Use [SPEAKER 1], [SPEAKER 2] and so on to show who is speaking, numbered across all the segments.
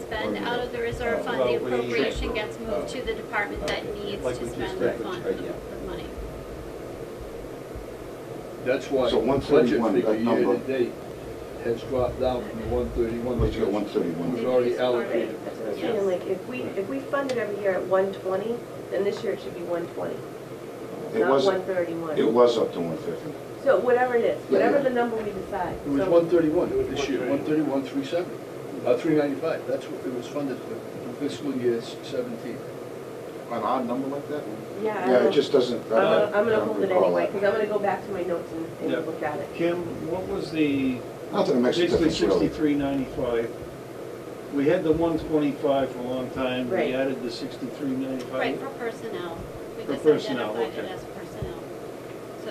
[SPEAKER 1] spend out of the reserve fund, the appropriation gets moved to the department that needs to spend the fund, the money.
[SPEAKER 2] That's why
[SPEAKER 3] So
[SPEAKER 2] the
[SPEAKER 3] 131,
[SPEAKER 2] budget figure
[SPEAKER 3] that number-
[SPEAKER 2] year-to-date has dropped down from the one thirty-one.
[SPEAKER 3] Let's go 131.
[SPEAKER 2] Was already allocated.
[SPEAKER 4] That's what I'm saying, like, if we, if we fund it every year at one twenty, then this year it should be one twenty,
[SPEAKER 3] It
[SPEAKER 4] not
[SPEAKER 3] was,
[SPEAKER 4] one
[SPEAKER 3] it
[SPEAKER 4] thirty-one.
[SPEAKER 3] was up to one fifty.
[SPEAKER 4] So whatever it is,
[SPEAKER 3] Yeah, yeah.
[SPEAKER 4] whatever the number we decide.
[SPEAKER 2] It was
[SPEAKER 4] So-
[SPEAKER 2] one thirty-one this year, one thirty-one, three seventy, uh, three ninety-five, that's what it was funded for, for fiscal year seventeen.
[SPEAKER 3] An odd number like that?
[SPEAKER 4] Yeah, I
[SPEAKER 3] Yeah, it
[SPEAKER 4] don't-
[SPEAKER 3] just doesn't, I
[SPEAKER 4] I'm gonna,
[SPEAKER 3] don't
[SPEAKER 4] I'm gonna
[SPEAKER 3] I don't
[SPEAKER 4] hold it
[SPEAKER 3] recall
[SPEAKER 4] anyway,
[SPEAKER 3] that.
[SPEAKER 4] because I'm gonna go back to my notes and,
[SPEAKER 5] Yeah.
[SPEAKER 4] and look at it.
[SPEAKER 5] Kim, what was the,
[SPEAKER 3] Not that it makes a
[SPEAKER 5] basically
[SPEAKER 3] difference really.
[SPEAKER 5] sixty-three ninety-five? We had the one twenty-five for a long time, we
[SPEAKER 4] Right.
[SPEAKER 5] added the sixty-three ninety-five.
[SPEAKER 1] Right, for personnel. We
[SPEAKER 5] For
[SPEAKER 1] just
[SPEAKER 5] personnel,
[SPEAKER 1] identified it
[SPEAKER 5] okay.
[SPEAKER 1] as personnel. So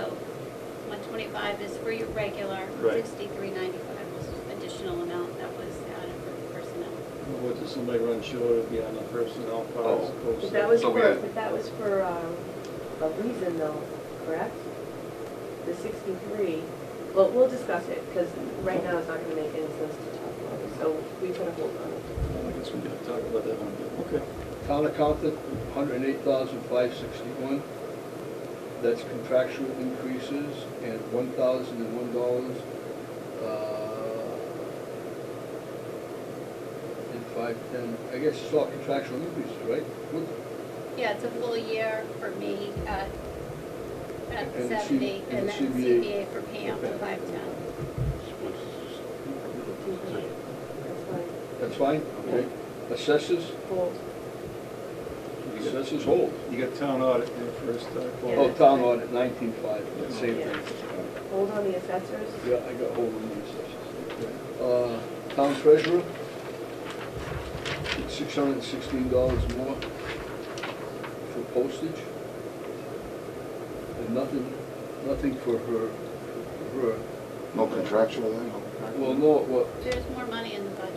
[SPEAKER 1] one twenty-five is for your regular,
[SPEAKER 5] Right.
[SPEAKER 1] sixty-three ninety-five was additional amount that was added for personnel.
[SPEAKER 5] What, did somebody run short of the, on the personnel
[SPEAKER 3] Oh.
[SPEAKER 5] file as opposed to?
[SPEAKER 4] But that was
[SPEAKER 6] So
[SPEAKER 4] for,
[SPEAKER 6] we had-
[SPEAKER 4] but that was for, um, a reason though, correct? The sixty-three, well, we'll discuss it, because right now it's not gonna make any sense to talk about it, so we can hold on.
[SPEAKER 5] I guess we gotta talk about that one, okay.
[SPEAKER 2] Town accountant, hundred and eight thousand five sixty-one. That's contractual increases and one thousand and one dollars. uh, And five ten, I guess it's all contractual increases, right? What-
[SPEAKER 1] Yeah, it's a full year for me at, at
[SPEAKER 2] And the C-
[SPEAKER 1] seventy, and
[SPEAKER 2] and the
[SPEAKER 1] then
[SPEAKER 2] CBA.
[SPEAKER 1] CBA for Pam for five-ten.
[SPEAKER 4] That's fine,
[SPEAKER 2] That's fine, okay. Assessors,
[SPEAKER 4] hold.
[SPEAKER 2] assessors hold.
[SPEAKER 5] You got town audit there first, uh,
[SPEAKER 4] Yeah,
[SPEAKER 2] Oh,
[SPEAKER 4] that's
[SPEAKER 2] town
[SPEAKER 4] fine.
[SPEAKER 2] audit, nineteen five, same
[SPEAKER 4] Yeah.
[SPEAKER 2] thing.
[SPEAKER 4] Hold on the assessors?
[SPEAKER 2] Yeah, I got hold of the assessors. Uh, town treasurer, six hundred and sixteen dollars more for postage. And nothing, nothing for her, for her.
[SPEAKER 3] No contractual then?
[SPEAKER 2] Well, no, what,
[SPEAKER 1] There's more money in the budget.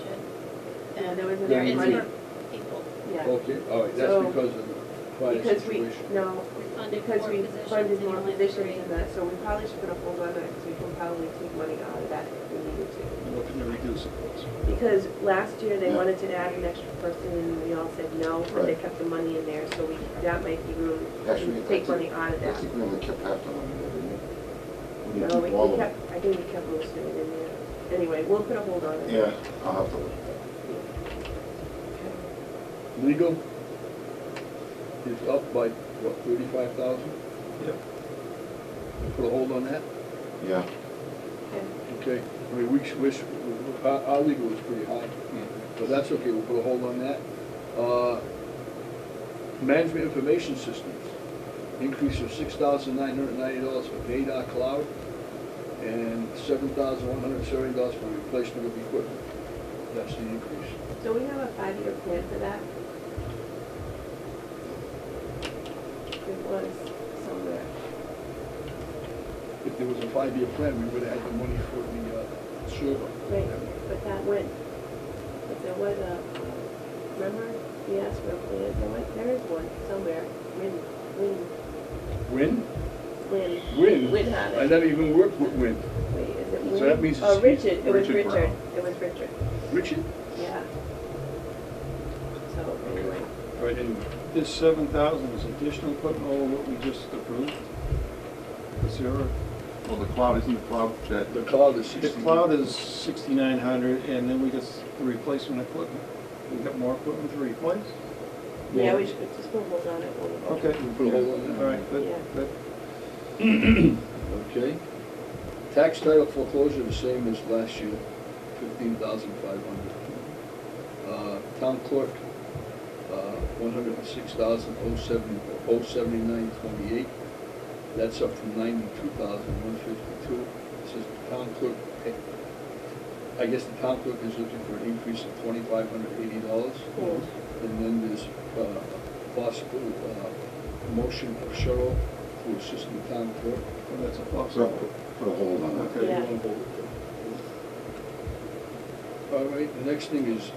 [SPEAKER 4] Yeah, there was
[SPEAKER 1] than
[SPEAKER 4] enough
[SPEAKER 1] There is
[SPEAKER 4] money.
[SPEAKER 1] for people.
[SPEAKER 4] Yeah,
[SPEAKER 2] okay, all right, that's
[SPEAKER 4] So-
[SPEAKER 2] because of the prior
[SPEAKER 4] because we,
[SPEAKER 2] situation.
[SPEAKER 4] no,
[SPEAKER 1] We funded
[SPEAKER 4] because
[SPEAKER 1] four
[SPEAKER 4] we
[SPEAKER 1] positions.
[SPEAKER 4] funded
[SPEAKER 1] and you
[SPEAKER 4] more
[SPEAKER 1] only
[SPEAKER 4] positions
[SPEAKER 1] three.
[SPEAKER 4] than that, so we probably should put a hold on that, because we can probably take money out of that if we needed to.
[SPEAKER 5] looking to reduce it. what's-
[SPEAKER 4] Because last year, they
[SPEAKER 3] Yeah.
[SPEAKER 4] wanted to add an extra person, and we all said no, but they
[SPEAKER 3] Right.
[SPEAKER 4] kept the money in there, so we, that might be room,
[SPEAKER 3] Actually, I
[SPEAKER 4] to take
[SPEAKER 3] think-
[SPEAKER 4] money out of
[SPEAKER 3] I
[SPEAKER 4] that.
[SPEAKER 3] think we only kept half the money, didn't we? We
[SPEAKER 4] No,
[SPEAKER 3] didn't
[SPEAKER 4] we
[SPEAKER 3] keep all
[SPEAKER 4] we
[SPEAKER 3] of it.
[SPEAKER 4] kept, I think we kept most of it in there. Anyway, we'll put a hold on it.
[SPEAKER 3] Yeah, I'll have to look.
[SPEAKER 2] Legal is up by, what, thirty-five thousand?
[SPEAKER 5] Yep.
[SPEAKER 2] Put a hold on that?
[SPEAKER 3] Yeah,
[SPEAKER 4] Okay.
[SPEAKER 2] Okay, I mean, we, we, our, our legal was pretty high, but that's okay, we'll put a hold on that. Uh, Management information systems, increase of six thousand nine hundred ninety dollars for Vadar Cloud and seven thousand one hundred seventy dollars for replacement of equipment. That's the increase.
[SPEAKER 4] So we have a five-year plan for that? It was somewhere.
[SPEAKER 2] If there was a five-year plan, we would have had the money for the, uh, server.
[SPEAKER 4] Right, but that went, but there was a, remember, we asked for a plan, there was, there is one somewhere, Win, Win,
[SPEAKER 2] Win?
[SPEAKER 4] Win.
[SPEAKER 2] Win?
[SPEAKER 4] Win had
[SPEAKER 2] I
[SPEAKER 4] it.
[SPEAKER 2] never even worked with Win.
[SPEAKER 4] Wait, is it Win?
[SPEAKER 2] So that means
[SPEAKER 4] Oh,
[SPEAKER 2] it's
[SPEAKER 4] Richard, it was
[SPEAKER 3] Richard
[SPEAKER 4] Richard,
[SPEAKER 3] Brown.
[SPEAKER 4] it was Richard,
[SPEAKER 2] Richard?
[SPEAKER 4] yeah. So, anyway,
[SPEAKER 2] Right, anyway.
[SPEAKER 5] This seven thousand is additional equipment over what we just approved? Is there a
[SPEAKER 6] Well, the cloud, isn't the cloud that,
[SPEAKER 2] The cloud is
[SPEAKER 5] The
[SPEAKER 2] sixteen.
[SPEAKER 5] cloud is sixty-nine hundred, and then we got the replacement equipment. We got more equipment to replace?
[SPEAKER 4] yeah, we should just put hold on it. we'll-
[SPEAKER 5] Okay,
[SPEAKER 2] We put a hold on that.
[SPEAKER 5] all right, but, but
[SPEAKER 2] Okay. Tax title foreclosure, the same as last year, fifteen thousand five hundred. Uh, town clerk, uh, one hundred and six thousand oh seventy, oh seventy-nine twenty-eight. That's up from ninety-two thousand one fifty-two. It says the town clerk, I guess the town clerk is looking for an increase of twenty-five hundred eighty dollars.
[SPEAKER 4] Cool.
[SPEAKER 2] And then there's uh, possible uh, motion of Cheryl to assist the town clerk.
[SPEAKER 5] well, that's a
[SPEAKER 3] so
[SPEAKER 5] possible.
[SPEAKER 3] put a hold on that.
[SPEAKER 4] Yeah.
[SPEAKER 2] All right, the next thing is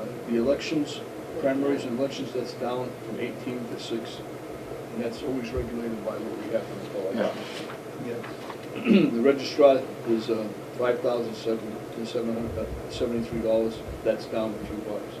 [SPEAKER 2] uh, the elections, primaries and elections, that's down from 18 to 6. And that's always regulated by what we have in
[SPEAKER 3] Yeah.
[SPEAKER 2] the elections.
[SPEAKER 5] Yes.
[SPEAKER 2] The registrar uh, is five thousand seven hundred seventy-three dollars, that's down a few bucks.